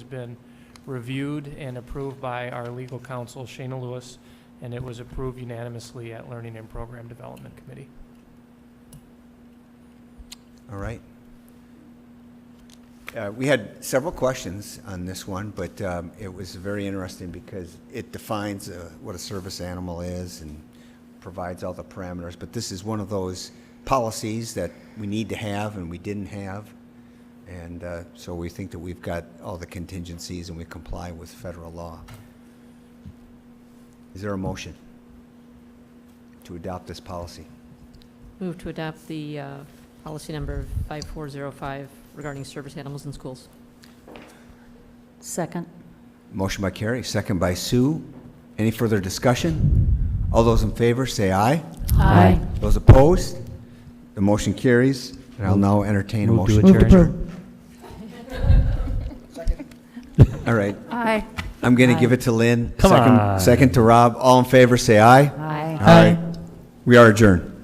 been reviewed and approved by our legal counsel, Shayna Lewis, and it was approved unanimously at Learning and Program Development Committee. All right. Uh, We had several questions on this one, but um, it was very interesting because it defines uh, what a service animal is and provides all the parameters. But this is one of those policies that we need to have and we didn't have. And uh, so we think that we've got all the contingencies and we comply with federal law. Is there a motion to adopt this policy? Move to adopt the uh, policy number 5405 regarding service animals in schools. Second. Motion by Carrie, second by Sue. Any further discussion? All those in favor, say aye. Aye. Those opposed? The motion carries, and I'll now entertain a Move to motion. Move to adjourn. All right, Aye. I'm going to give it to Lynn. Come Second- on. Second to Rob. All in favor, say aye. Aye. We are adjourned.